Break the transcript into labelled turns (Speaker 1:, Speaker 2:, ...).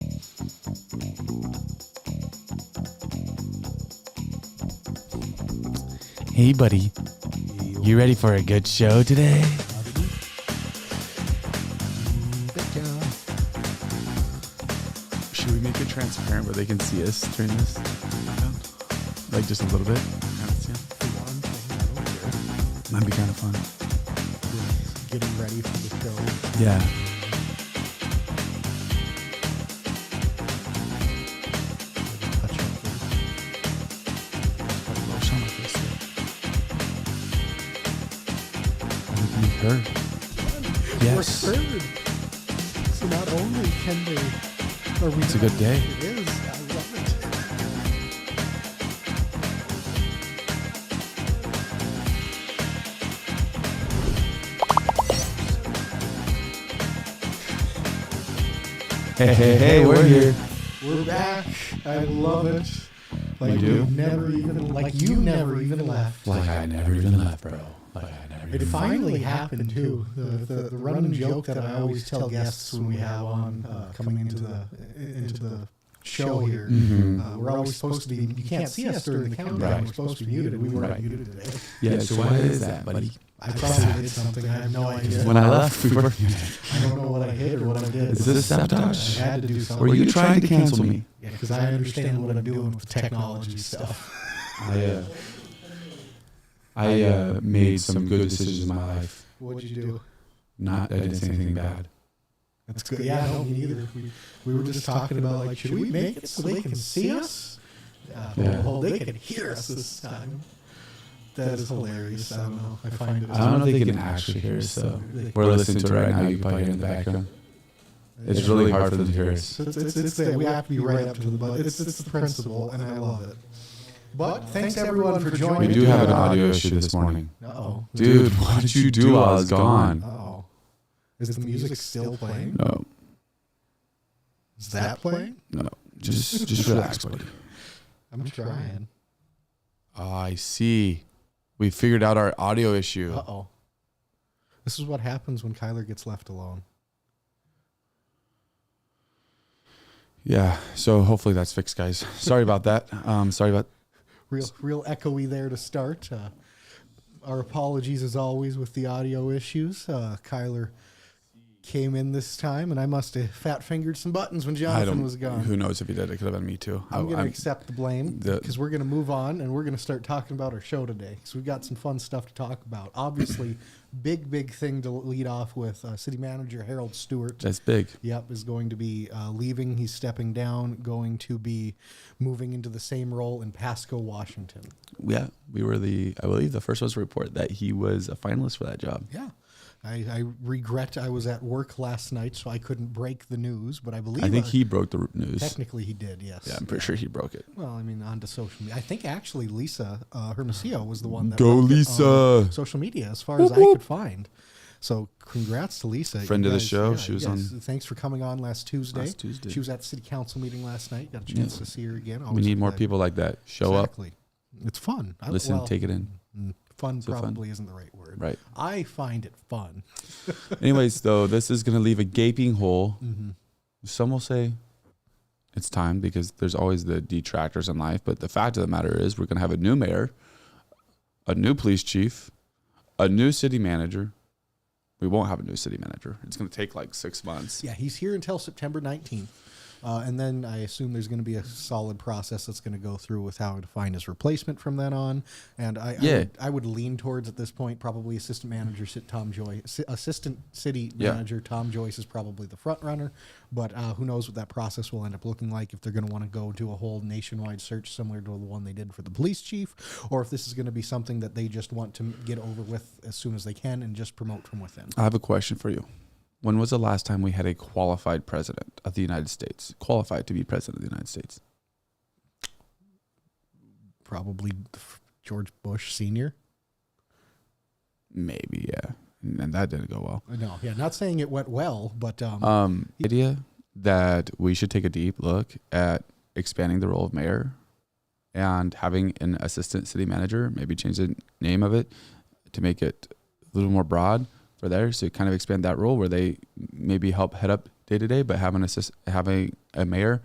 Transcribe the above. Speaker 1: Hey, buddy. You ready for a good show today?
Speaker 2: Should we make it transparent where they can see us during this? Like just a little bit? Might be kind of fun.
Speaker 3: Getting ready for the show.
Speaker 2: Yeah.
Speaker 3: Touch up.
Speaker 2: We can be heard. Yes.
Speaker 3: We're heard. So not only can they, are we?
Speaker 2: It's a good day.
Speaker 3: It is. I love it.
Speaker 2: Hey, hey, hey, we're here.
Speaker 3: We're back. I love it. Like
Speaker 2: You do?
Speaker 3: we've never even, like you never even left.
Speaker 2: Like I never even left, bro. Like I never
Speaker 3: It
Speaker 2: even left.
Speaker 3: finally happened too. The, the, the running joke that I always tell guests when we have on uh, coming into the into the show here.
Speaker 2: Mhm.
Speaker 3: Uh, we're always supposed to be. You can't see us during the countdown.
Speaker 2: Right.
Speaker 3: We're supposed to be muted. We weren't
Speaker 2: Right.
Speaker 3: muted today.
Speaker 2: Yeah, so why is that, buddy?
Speaker 3: I probably did something. I have no idea.
Speaker 2: When I left, we were.
Speaker 3: I don't know what I hit or what I did.
Speaker 2: Is this
Speaker 3: I
Speaker 2: sabotage?
Speaker 3: had to do something.
Speaker 2: Were you trying to cancel me?
Speaker 3: Because I understand what I'm doing with technology stuff.
Speaker 2: I uh, I uh, made some good decisions in my life.
Speaker 3: What'd you do?
Speaker 2: Not I didn't say anything bad.
Speaker 3: That's good. Yeah, no, me neither. We, we were just talking about like, should we make it so they can see us? Uh,
Speaker 2: Yeah.
Speaker 3: Well, they can hear us this time. That is hilarious. I don't know. I find it.
Speaker 2: I don't know if they can actually hear us though.
Speaker 3: They-
Speaker 2: We're listening to it right now. You can probably hear it in the background. It's really hard for them to hear us.
Speaker 3: So It's, it's, it's there. We have to be right up to the but. It's, it's the principle, and I love it. But thanks everyone for joining.
Speaker 2: We do have an audio issue this morning,
Speaker 3: Uh-oh.
Speaker 2: dude. What did you do while I was gone?
Speaker 3: Uh-oh. Is the music still playing?
Speaker 2: No,
Speaker 3: Is that playing?
Speaker 2: no. Just just relax, buddy.
Speaker 3: I'm trying.
Speaker 2: I see. We figured out our audio issue.
Speaker 3: Uh-oh. This is what happens when Kyler gets left alone.
Speaker 2: Yeah. So hopefully that's fixed, guys. Sorry about that. Um, sorry about.
Speaker 3: Real, real echoey there to start. Uh, our apologies, as always, with the audio issues. Uh, Kyler came in this time, and I must have fat fingered some buttons when
Speaker 2: I
Speaker 3: Jonathan
Speaker 2: don't.
Speaker 3: was gone.
Speaker 2: Who knows if he did? It could have been me too. I-
Speaker 3: I'm going to accept the blame
Speaker 2: the-
Speaker 3: because we're going to move on and we're going to start talking about our show today because we've got some fun stuff to talk about. Obviously, big, big thing to lead off with uh, City Manager Harold Stewart.
Speaker 2: that's big.
Speaker 3: Yep, is going to be uh, leaving. He's stepping down, going to be moving into the same role in Pasco, Washington.
Speaker 4: yeah, we were the I believe the first ones to report that he was a finalist for that job.
Speaker 3: Yeah. I, I regret I was at work last night, so I couldn't break the news, but I believe
Speaker 4: I think
Speaker 3: uh,
Speaker 4: he broke the news.
Speaker 3: technically he did, yes.
Speaker 4: Yeah, I'm pretty sure he broke it.
Speaker 3: Well, I mean, onto social media. I think actually Lisa uh, Hermosillo was the one that
Speaker 2: Go,
Speaker 3: left it
Speaker 2: Lisa.
Speaker 3: on social media, as far as I could find. So, congrats to Lisa, You
Speaker 2: Friend of the show. She was
Speaker 3: Thanks for coming on last Tuesday.
Speaker 4: Last Tuesday.
Speaker 3: she was at the city council meeting last night. Got a chance to see her again.
Speaker 2: Oh,
Speaker 4: We
Speaker 3: Always
Speaker 4: need more
Speaker 3: glad-
Speaker 4: people like that. Show
Speaker 3: exactly. It's fun. I,
Speaker 4: up, listen,
Speaker 3: well,
Speaker 4: take it in.
Speaker 3: mm, Fun
Speaker 4: fun.
Speaker 3: probably isn't the right word.
Speaker 4: Right.
Speaker 3: I find it fun.
Speaker 4: Anyways, though, this is gonna leave a gaping hole.
Speaker 3: Mhm.
Speaker 4: Some will say it's time because there's always the detractors in life. But the fact of the matter is, we're gonna have a new mayor, a new police chief, a new city manager. We won't have a new city manager. It's gonna take like six months.
Speaker 3: Yeah, he's here until September 19th. Uh, and then I assume there's going to be a solid process that's going to go through with how to find his replacement from then on. And I, I,
Speaker 4: Yeah.
Speaker 3: would, I would lean towards at this point probably assistant manager Sit- Tom Joyce, assistant city
Speaker 4: Yeah.
Speaker 3: manager Tom Joyce is probably the front runner. But uh, who knows what that process will end up looking like if they're going to want to go do a whole nationwide search similar to the one they did for the police chief, or if this is going to be something that they just want to get over with as soon as they can and just promote from within.
Speaker 4: I have a question for you. When was the last time we had a qualified president of the United States? Qualified to be president of the United States.
Speaker 3: Probably George Bush Senior.
Speaker 4: Maybe, yeah. And that didn't go
Speaker 3: No, yeah, not saying it went well, but um,
Speaker 4: well. Um idea that we should take a deep look at expanding the role of mayor and having an assistant city manager, maybe change the name of it to make it a little more broad for there. So kind of expand that role where they maybe help head up day to day, but have an assist having a mayor